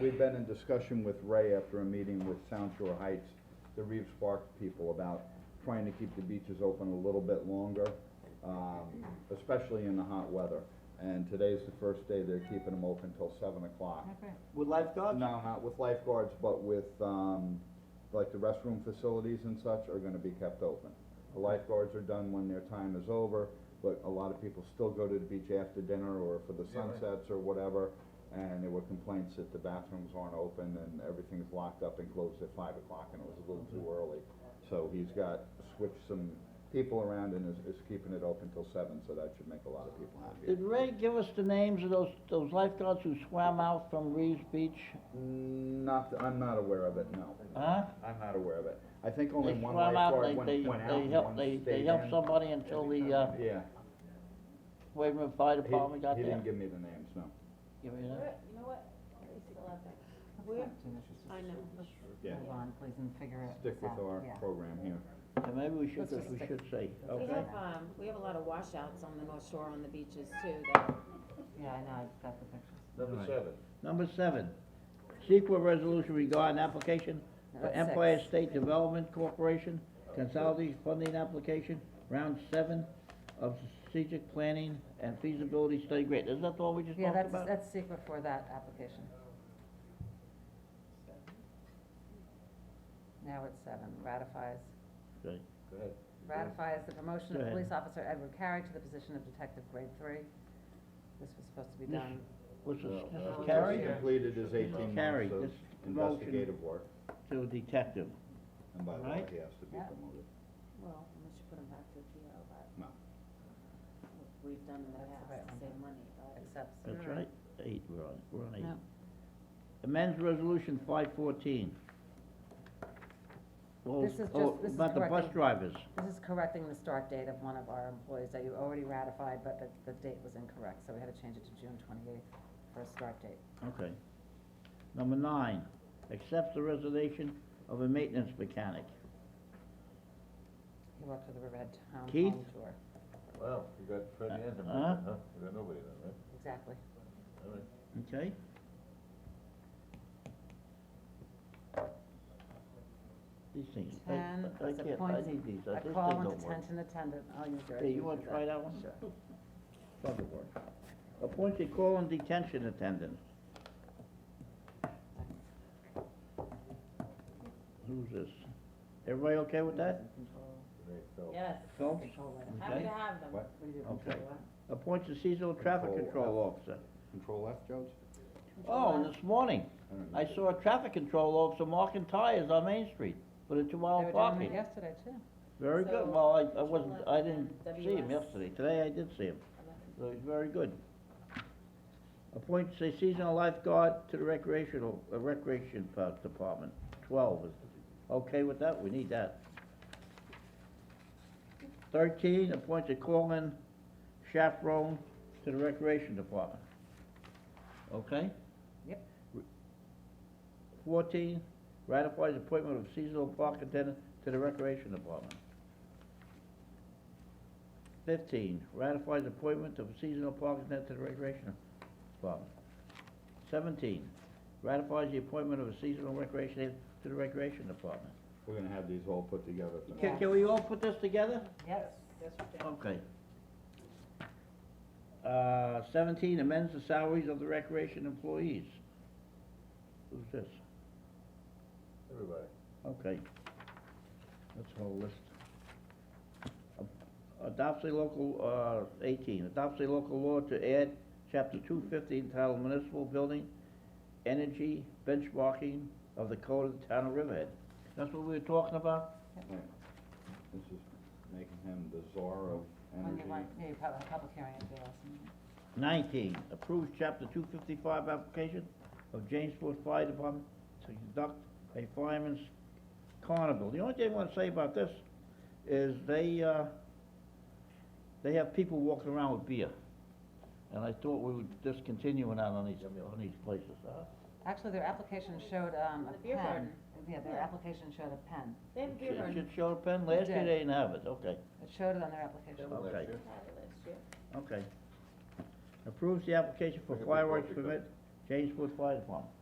We've been in discussion with Ray after a meeting with Sound Shore Heights, the Reeves Park people, about trying to keep the beaches open a little bit longer, um, especially in the hot weather. And today's the first day they're keeping them open till seven o'clock. With lifeguards? No, not with lifeguards, but with, um, like the restroom facilities and such are gonna be kept open. The lifeguards are done when their time is over, but a lot of people still go to the beach after dinner or for the Yeah, right. sunsets or whatever. And there were complaints that the bathrooms aren't open and everything's locked up and closed at five o'clock and it was a little too early. So he's got, switched some people around and is, is keeping it open till seven, so that should make a lot of people happy. Did Ray give us the names of those, those lifeguards who swam out from Reeves Beach? Not, I'm not aware of it, no. Huh? I'm not aware of it. I think only They one swam out, lifeguard they, went, they, went out they and helped, one stayed they, in. they helped somebody until the, uh, Yeah, Waverman Fire He- Department got he, there. didn't give me the names, no. Give me that. Where, you know what? Where, I know. Yeah. Move on, please, and figure it out. Stick with our yeah. program here. And maybe we should, Let's just we stick- should say, We okay. have, um, we have a lot of washouts on the North Shore on the beaches too, that, Yeah, I know, I've got the pictures. Number seven. Number seven, sequel resolution regarding application for That's six. Empire State Development Corporation consolidated funding application, round seven of strategic planning and feasibility study grant. Is that all we just Yeah, talked that's, about? that's secret for that application. Now it's seven, ratifies, Okay. Go ahead. ratifies the Go promotion of ahead. police officer Edward Carey to the position of detective grade three. This was supposed to be This- done, Was this, this Uh, is just Carrie Completed his eighteen Carrie, months of this promotion. investigative work, to detective? and by the way, Right. he has to be Yeah. promoted. well, unless you put them back to PO, but. No. We've done in the That's the past right to one. save money, but. accepts. That's right, eight, we're on, we're on eight. No. Amends resolution five fourteen. This is just- this is About the bus correcting- drivers. This is correcting the start date of one of our employees that you already ratified, but the, the date was incorrect, so we had to change it to June twenty-eighth for a start date. Okay. Number nine, accepts the resignation of a maintenance mechanic. He worked for the Riverhead Town Keith? Home Tour. Wow, you got Freddie and him, Uh-huh. right, huh? You got nobody then, right? Exactly. All right. Okay? These things, I, Ten, I is can't, I appoints need these, I- a this thing call and don't work. detention attendant, oh, you dirty. Hey, you wanna try that one? Sure. Doesn't work. Appoints a call and detention attendant. Who's this? Everybody okay with that? Control- Great, so- Yes, Phelps? Control it. happy Okay. to have them. What? What do you do, Okay. control what? Appoints a seasonal traffic Control control officer. Control F, Jones? Oh, Control and this morning, I don't know. I saw a traffic control officer marking tires on Main Street for the They two-hour were doing it parking. yesterday too. Very So, good, well, I, I wasn't, Control I F didn't and see him WS. yesterday, today I did see him, Eleven. so he's very good. Appoints a seasonal lifeguard to the recreational, uh, recreation part- department, twelve is, okay with that, we need that. Thirteen, appoints a call-in chaperone to the recreation department, okay? Yep. Fourteen, ratifies appointment of seasonal park attendant to the Recreation Department. Fifteen, ratifies appointment of seasonal park attendant to the Recreation Department. Seventeen, ratifies the appointment of a seasonal recreation aide to the Recreation Department. We're gonna have these all put together. tonight. Can, can we all put this together? Yes. Yes, we did. Okay. Uh, seventeen, amends the salaries of the recreation employees. Who's this? Everybody. Okay. That's a whole list. A- Adopts a local, uh, eighteen, adopts a local law to add chapter two fifty entitled municipal building, energy benchmarking of the code of the town of Riverhead. That's what we were talking about? Right. This is making him the czar of On energy. Mm-hmm. your right, yeah, you probably had a public hearing at the last meeting. Nineteen, approves chapter two fifty-five application of Jamesport Fire Department to conduct a fireman's carnival. The only thing I wanna say about this is they, uh, they have people walking around with beer. And I thought we would discontinue that on these, on these places, huh? Actually, their application showed, um, a The beer pen. garden. Yeah, their Yeah. application showed a pen. They have a beer It garden, should show a pen, last year they didn't have it, okay, It showed it on their application. Okay. They had it last year. okay. Approves the application for Look at the fireworks project permit, Jamesport Fire Department.